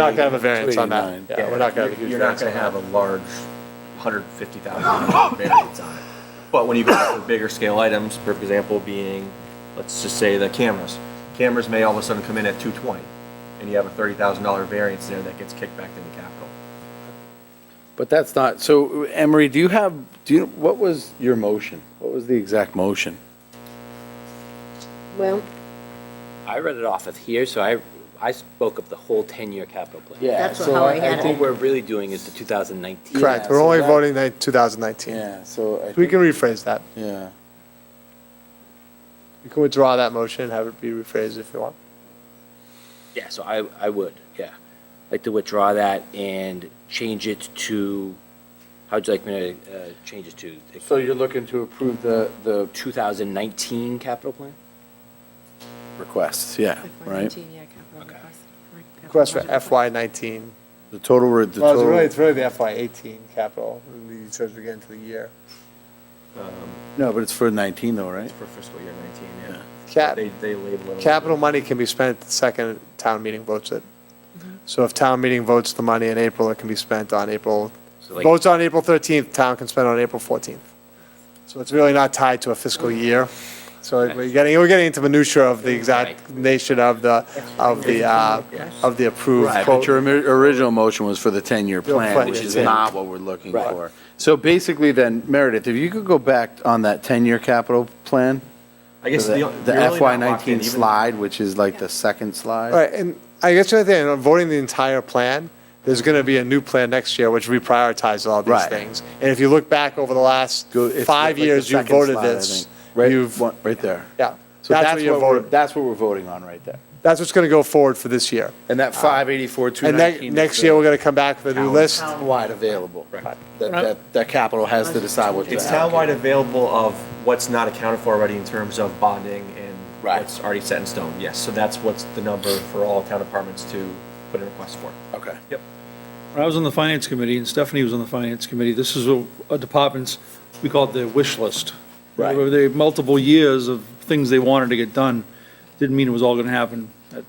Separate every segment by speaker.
Speaker 1: Not gonna have a variance on that.
Speaker 2: 289.
Speaker 1: Yeah, we're not gonna have a
Speaker 3: You're-
Speaker 1: huge
Speaker 3: You're not
Speaker 1: variance.
Speaker 3: gonna have a large hundred fifty thousand dollar variance on it. But when you go for bigger scale items, for example, being, let's just say the cameras. Cameras may all of a sudden come in at two twenty, and you have a thirty thousand dollar variance there that gets kicked back into capital.
Speaker 2: But that's not, so Emery, do you have, do you, what was your motion? What was the exact motion?
Speaker 4: Well,
Speaker 5: I read it off of here, so I, I spoke of the whole 10-year capital plan.
Speaker 4: That's how I had it.
Speaker 5: What we're really doing is the 2019.
Speaker 2: Yeah,
Speaker 1: Correct, we're
Speaker 2: so
Speaker 1: only
Speaker 2: that-
Speaker 1: voting that 2019.
Speaker 2: Yeah, so I
Speaker 1: We
Speaker 2: think,
Speaker 1: can rephrase that.
Speaker 2: yeah.
Speaker 1: You can withdraw that motion and have it be rephrased if you want.
Speaker 5: Yeah, so I, I would, yeah. Like to withdraw that and change it to, how'd you like me to uh, change it to? The
Speaker 2: So you're looking to approve the, the
Speaker 5: 2019 capital plan?
Speaker 2: requests, yeah, right?
Speaker 1: Request for FY19.
Speaker 2: The total, re- the
Speaker 1: Well, it's really,
Speaker 2: total,
Speaker 1: it's really the FY18 capital, it says we get into the year.
Speaker 2: no, but it's for 19 though, right?
Speaker 3: It's for fiscal year nineteen, yeah.
Speaker 1: Cap,
Speaker 3: They, they label it.
Speaker 1: capital money can be spent the second town meeting votes it. So if town meeting votes the money in April, it can be spent on April,
Speaker 5: So like-
Speaker 1: votes on April 13th, town can spend on April 14th. So it's really not tied to a fiscal year. So we're getting, we're getting into minutia of the exact nation of the, of the, uh, of the approved
Speaker 2: Right, but
Speaker 1: quote.
Speaker 2: your ori- original motion was for the 10-year
Speaker 1: Your
Speaker 2: plan,
Speaker 1: plan,
Speaker 2: which is
Speaker 1: yeah.
Speaker 2: not what we're looking for. So basically then, Meredith, if you could go back on that 10-year capital plan,
Speaker 3: I
Speaker 2: the
Speaker 3: guess the.
Speaker 2: the
Speaker 3: you're really not locked in,
Speaker 2: FY19
Speaker 3: even-
Speaker 2: slide, which is like the second slide.
Speaker 1: Right, and I guess the other thing, on voting the entire plan, there's going to be a new plan next year which reprioritizes all these
Speaker 2: Right.
Speaker 1: things. And if you look back over the last
Speaker 2: Go- it's
Speaker 1: five
Speaker 2: like the
Speaker 1: years, you
Speaker 2: second
Speaker 1: voted
Speaker 2: slide, I
Speaker 1: this.
Speaker 2: think.
Speaker 1: You've,
Speaker 2: Right, right there.
Speaker 1: yeah,
Speaker 2: So
Speaker 1: that's what you
Speaker 2: we're-
Speaker 1: voted.
Speaker 2: That's what we're voting on right there.
Speaker 1: That's what's going to go forward for this year.
Speaker 2: And that 584,
Speaker 1: And
Speaker 2: 219.
Speaker 1: ne- next year, we're going to come back with a new list.
Speaker 2: Townwide available.
Speaker 3: Right.
Speaker 2: That, that, that capital has to decide what to
Speaker 3: It's
Speaker 2: allocate.
Speaker 3: townwide available of what's not accounted for already in terms of bonding and
Speaker 2: Right.
Speaker 3: what's already set in stone, yes. So that's what's the number for all town departments to put in requests for.
Speaker 2: Okay.
Speaker 3: Yep.
Speaker 6: When I was on the finance committee and Stephanie was on the finance committee, this is a a department's, we call it their wish list.
Speaker 2: Right.
Speaker 6: There were the multiple years of things they wanted to get done. Didn't mean it was all going to happen, that-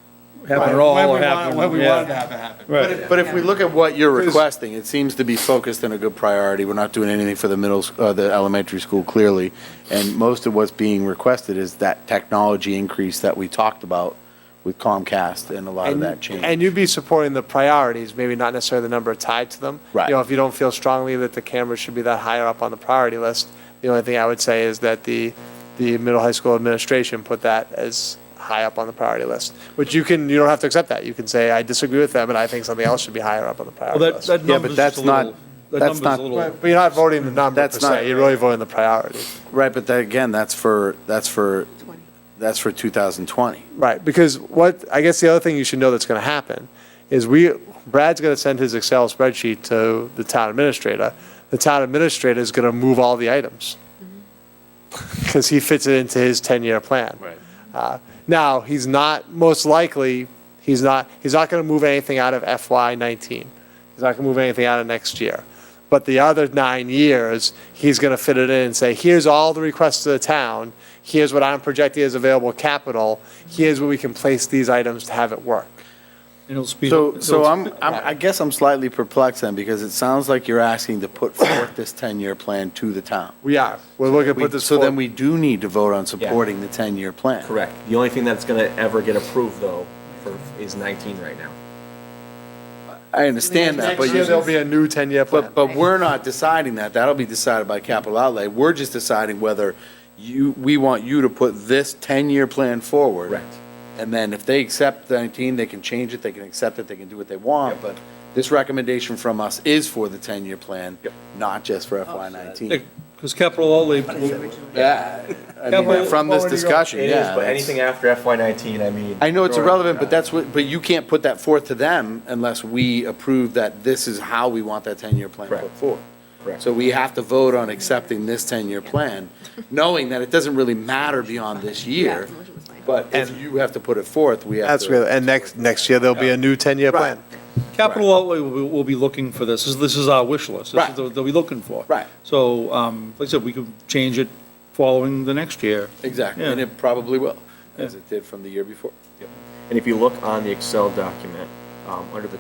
Speaker 6: happen at all or happen. yeah.
Speaker 1: have it happen.
Speaker 6: Right.
Speaker 2: But if we look at what you're requesting, it seems to be focused on a good priority. We're not doing anything for the middle, s- uh, the elementary school clearly. And most of what's being requested is that technology increase that we talked about with Comcast and a lot of that change.
Speaker 1: And you'd be supporting the priorities, maybe not necessarily the number tied to them.
Speaker 2: Right.
Speaker 1: You know, if you don't feel strongly that the cameras should be that higher up on the priority list, the only thing I would say is that the, the middle high school administration put that as high up on the priority list, which you can, you don't have to accept that. You can say, I disagree with them, and I think something else should be higher up on the priority
Speaker 6: Well, that,
Speaker 1: list.
Speaker 6: that
Speaker 2: Yeah, but
Speaker 6: number's just
Speaker 2: that's
Speaker 6: a
Speaker 2: not-
Speaker 6: little, that
Speaker 2: that's
Speaker 6: number's a
Speaker 2: not-
Speaker 6: little.
Speaker 1: But but you're not voting the number per
Speaker 2: That's not-
Speaker 1: se, you're really voting the priority.
Speaker 2: Right, but that, again, that's for, that's for, that's for 2020.
Speaker 1: Right, because what, I guess the other thing you should know that's gonna happen is we, Brad's gonna send his Excel spreadsheet to the town administrator. The town administrator is gonna move all the items. Cause he fits it into his ten-year plan. Right. Uh, now, he's not, most likely, he's not, he's not gonna move anything out of FY nineteen. He's not gonna move anything out of next year. But the other nine years, he's gonna fit it in and say, here's all the requests to the town, here's what I'm projecting as available capital, here's where we can place these items to have it work.
Speaker 6: and it'll speed-
Speaker 2: So,
Speaker 6: it'll
Speaker 2: so I'm, I'm, I guess I'm slightly perplexed then, because it sounds like you're asking to put forth this 10-year plan to the town.
Speaker 1: We are, we're looking to put this
Speaker 2: So then
Speaker 1: forward.
Speaker 2: we do need to vote on supporting the 10-year plan.
Speaker 3: Correct. The only thing that's gonna ever get approved though for, is nineteen right now.
Speaker 2: I understand that, but
Speaker 1: Next year,
Speaker 2: you're,
Speaker 1: there'll be a new ten-year plan.
Speaker 2: But, but we're not deciding that. That'll be decided by capital outlay. We're just deciding whether you, we want you to put this 10-year plan forward.
Speaker 3: Correct.
Speaker 2: And then if they accept the 19, they can change it, they can accept it, they can do what they want.
Speaker 3: Yep.
Speaker 2: But this recommendation from us is for the 10-year plan,
Speaker 3: Yep.
Speaker 2: not just
Speaker 3: Oh,
Speaker 2: for FY19.
Speaker 6: Because capital outlay,
Speaker 2: Yeah, I mean,
Speaker 6: but-
Speaker 2: from this discussion,
Speaker 3: It is,
Speaker 2: yeah.
Speaker 3: but
Speaker 2: that's-
Speaker 3: anything after FY nineteen, I mean.
Speaker 2: I know it's
Speaker 3: throw it-
Speaker 2: irrelevant, but that's what, but you can't put that forth to them unless we approve that this is how we want that 10-year plan
Speaker 3: Correct.
Speaker 2: put forward.
Speaker 3: Correct.
Speaker 2: So we have to vote on accepting this 10-year plan, knowing that it doesn't really matter beyond this year, but if you have to put it forth, we have to.
Speaker 1: That's real, and next, next year, there'll be a new ten-year
Speaker 2: Right.
Speaker 1: plan.
Speaker 6: capital outlay will, be- will be looking for this. This is- This is our wish list. This
Speaker 2: Right.
Speaker 6: is what They'll be looking for.
Speaker 2: Right.
Speaker 6: So, um, like I said, we could change it following the next year.
Speaker 2: Exactly,
Speaker 6: Yeah.
Speaker 2: and it probably will, as it did from the year before.
Speaker 3: And if you look on the Excel document, um, under the